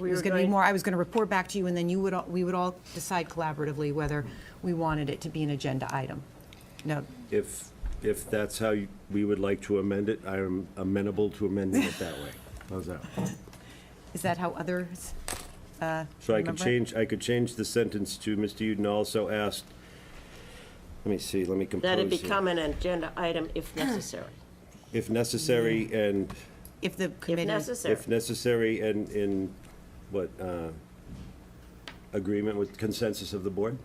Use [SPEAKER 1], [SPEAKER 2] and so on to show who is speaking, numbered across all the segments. [SPEAKER 1] It was
[SPEAKER 2] were
[SPEAKER 1] going to be
[SPEAKER 2] going-
[SPEAKER 1] more, I was going to report back to you, and then you would, all- we would all decide collaboratively whether we wanted it to be an agenda item. No,
[SPEAKER 3] If, if that's how you- we would like to amend it, I am amenable to amending it that way. How's that?
[SPEAKER 1] is that how others?
[SPEAKER 3] So I could
[SPEAKER 1] Remember?
[SPEAKER 3] change, I could change the sentence to, Mr. Uden also asked, let me see, let me compose
[SPEAKER 2] That it
[SPEAKER 3] here.
[SPEAKER 2] become an agenda item if necessary,
[SPEAKER 3] If necessary and,
[SPEAKER 1] If the
[SPEAKER 2] if
[SPEAKER 1] committee,
[SPEAKER 2] necessary.
[SPEAKER 3] if necessary and in, what, uh, agreement with consensus of the board?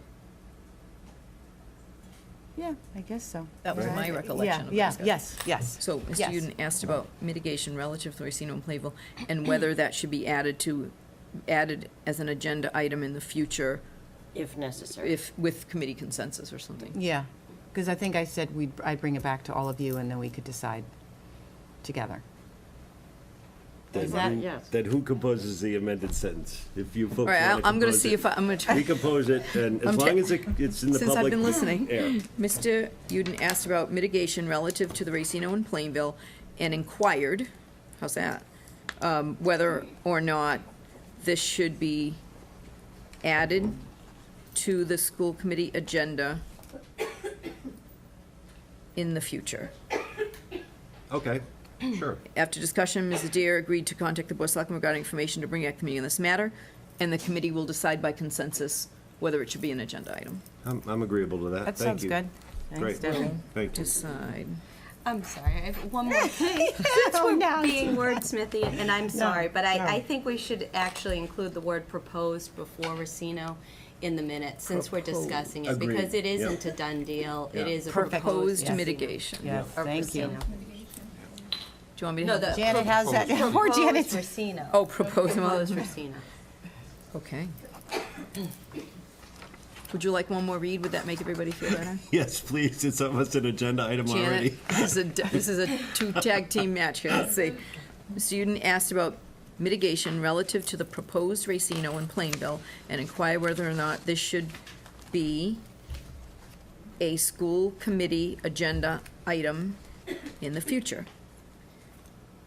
[SPEAKER 1] yeah, I guess so.
[SPEAKER 4] That was my
[SPEAKER 1] Yeah,
[SPEAKER 4] recollection of the
[SPEAKER 1] yeah,
[SPEAKER 4] discussion.
[SPEAKER 1] Yes, yes.
[SPEAKER 4] So
[SPEAKER 1] Yes.
[SPEAKER 4] Mr. Uden asked about mitigation relative to Racino and Playville and whether that should be added to, added as an agenda item in the future
[SPEAKER 2] If necessary.
[SPEAKER 4] if, with committee consensus or something.
[SPEAKER 1] Yeah, because I think I said we'd, I'd bring it back to all of you, and then we could decide together.
[SPEAKER 3] Then
[SPEAKER 2] Is that-
[SPEAKER 3] who-
[SPEAKER 2] yes.
[SPEAKER 3] Then who composes the amended sentence? If you folks
[SPEAKER 4] All right, I'll-
[SPEAKER 3] want to
[SPEAKER 4] I'm gonna
[SPEAKER 3] compose
[SPEAKER 4] see
[SPEAKER 3] it.
[SPEAKER 4] if I- I'm gonna try-
[SPEAKER 3] We compose it, and as
[SPEAKER 4] I'm ta-
[SPEAKER 3] long as it- it's in the
[SPEAKER 4] Since I've
[SPEAKER 3] public
[SPEAKER 4] been listening.
[SPEAKER 3] air.
[SPEAKER 4] Mr. Uden asked about mitigation relative to the Racino and Plainville and inquired, how's that? Um, whether or not this should be added to the school committee agenda in the future.
[SPEAKER 3] Okay, sure.
[SPEAKER 4] After discussion, Mms. Adair agreed to contact the Board of Selectmen regarding information to bring at committee on this matter, and the committee will decide by consensus whether it should be an agenda item.
[SPEAKER 3] I'm, I'm agreeable to that.
[SPEAKER 1] That
[SPEAKER 3] Thank
[SPEAKER 1] sounds
[SPEAKER 3] you.
[SPEAKER 1] good.
[SPEAKER 3] Great,
[SPEAKER 4] Debbie.
[SPEAKER 3] thank you.
[SPEAKER 4] Decide.
[SPEAKER 5] I'm sorry, I have one more thing.
[SPEAKER 1] Oh, now it's-
[SPEAKER 5] Being wordsmithy, and I'm sorry, but I, I think we should actually include the word proposed before Racino in the minute, since we're discussing it, because
[SPEAKER 3] Agreed,
[SPEAKER 5] it
[SPEAKER 3] yeah.
[SPEAKER 5] isn't a done deal, it
[SPEAKER 3] Yeah.
[SPEAKER 5] is a
[SPEAKER 1] Perfect.
[SPEAKER 4] Proposed
[SPEAKER 5] proposed.
[SPEAKER 1] Yes.
[SPEAKER 4] mitigation. Do
[SPEAKER 1] Yes,
[SPEAKER 5] or
[SPEAKER 1] thank you.
[SPEAKER 5] Racino.
[SPEAKER 4] you want me to?
[SPEAKER 5] No,
[SPEAKER 4] have
[SPEAKER 5] the.
[SPEAKER 4] that?
[SPEAKER 1] Janet, how's that? Poor
[SPEAKER 5] Proposed
[SPEAKER 1] Janet.
[SPEAKER 5] Racino.
[SPEAKER 4] Oh, proposed,
[SPEAKER 5] Proposed
[SPEAKER 4] modi-
[SPEAKER 5] Racino.
[SPEAKER 4] okay. Would you like one more read? Would that make everybody feel better?
[SPEAKER 3] Yes, please, it's almost an agenda item
[SPEAKER 4] Janet,
[SPEAKER 3] already.
[SPEAKER 4] this is a, this is a two tag team match here, let's see. Mr. Uden asked about mitigation relative to the proposed Racino in Plainville and inquire whether or not this should be a school committee agenda item in the future.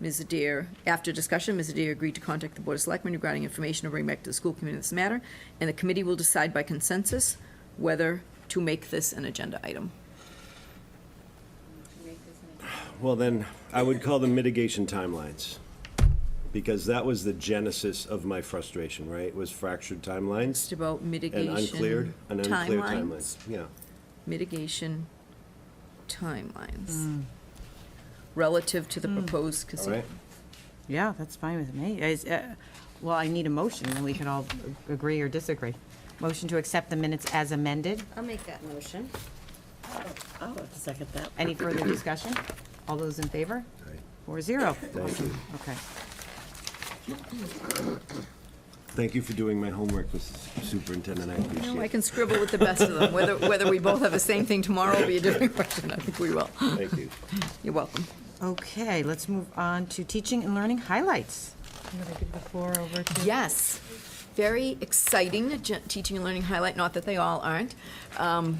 [SPEAKER 4] Ms. Adair, after discussion, Ms. Adair agreed to contact the Board of Selectmen regarding information to bring back to the school committee on this matter, and the committee will decide by consensus whether to make this an agenda item.
[SPEAKER 3] Well, then, I would call them mitigation timelines, because that was the genesis of my frustration, right? Was fractured timelines
[SPEAKER 4] Just about
[SPEAKER 3] and
[SPEAKER 4] mitigation.
[SPEAKER 3] uncleared, and unclear timelines.
[SPEAKER 4] timelines.
[SPEAKER 3] Yeah,
[SPEAKER 4] Mitigation timelines. Relative to the proposed
[SPEAKER 3] all
[SPEAKER 4] casino.
[SPEAKER 3] right?
[SPEAKER 1] Yeah, that's fine with me. Is, uh, Well, I need a motion, and we can all agree or disagree. Motion to accept the minutes as amended.
[SPEAKER 5] I'll make that motion.
[SPEAKER 2] I'll second that.
[SPEAKER 1] Any further discussion? All those in favor?
[SPEAKER 3] Right.
[SPEAKER 1] Four zero.
[SPEAKER 3] Thank you.
[SPEAKER 1] Okay.
[SPEAKER 3] Thank you for doing my homework, Mrs. Superintendent, I appreciate
[SPEAKER 4] No, Oh, I
[SPEAKER 3] it.
[SPEAKER 4] can scribble with the best of them, whether, whether we both have the same thing tomorrow will be a different question, I think we will.
[SPEAKER 3] Thank you.
[SPEAKER 4] You're welcome.
[SPEAKER 1] Okay, let's move on to teaching and learning highlights. I'm going to give the floor over to.
[SPEAKER 4] Yes, very exciting agen- teaching and learning highlight, not that they all aren't. Um,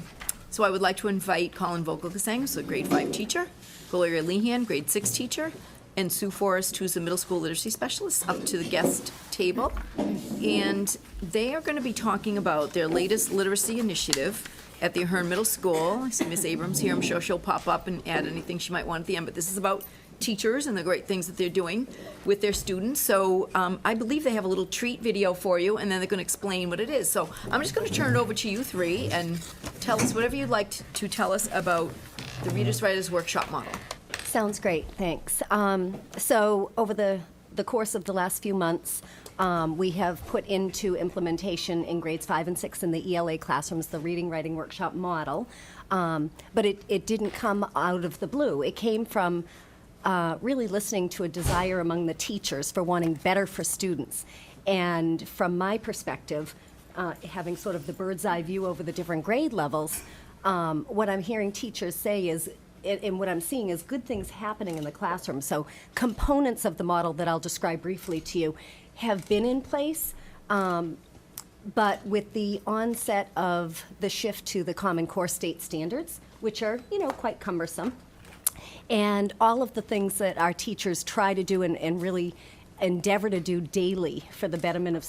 [SPEAKER 4] So I would like to invite Colin Vogelgesang, who's a grade five teacher, Gloria Lehan, grade six teacher, and Sue Forrest, who's a middle school literacy specialist, up to the guest table. And they are going to be talking about their latest literacy initiative at the Ahern Middle School. I see Miss Abrams here, I'm sure she'll pop up and add anything she might want at the end, but this is about teachers and the great things that they're doing with their students. So um, I believe they have a little treat video for you, and then they're going to explain what it is. So I'm just going to turn it over to you three and tell us whatever you'd like t- to tell us about the Readers Writers Workshop model.
[SPEAKER 6] Sounds great, thanks. Um, So over the, the course of the last few months, um, we have put into implementation in grades five and six in the ELA classrooms, the reading, writing workshop model. Um, But it, it didn't come out of the blue. It came from uh, really listening to a desire among the teachers for wanting better for students. And from my perspective, uh, having sort of the bird's eye view over the different grade levels, um, what I'm hearing teachers say is, and, and what I'm seeing is good things happening in the classroom. So, components of the model that I'll describe briefly to you have been in place, um, but with the onset of the shift to the Common Core state standards, which are, you know, quite cumbersome, and all of the things that our teachers try to do and, and really endeavor to do daily for the betterment of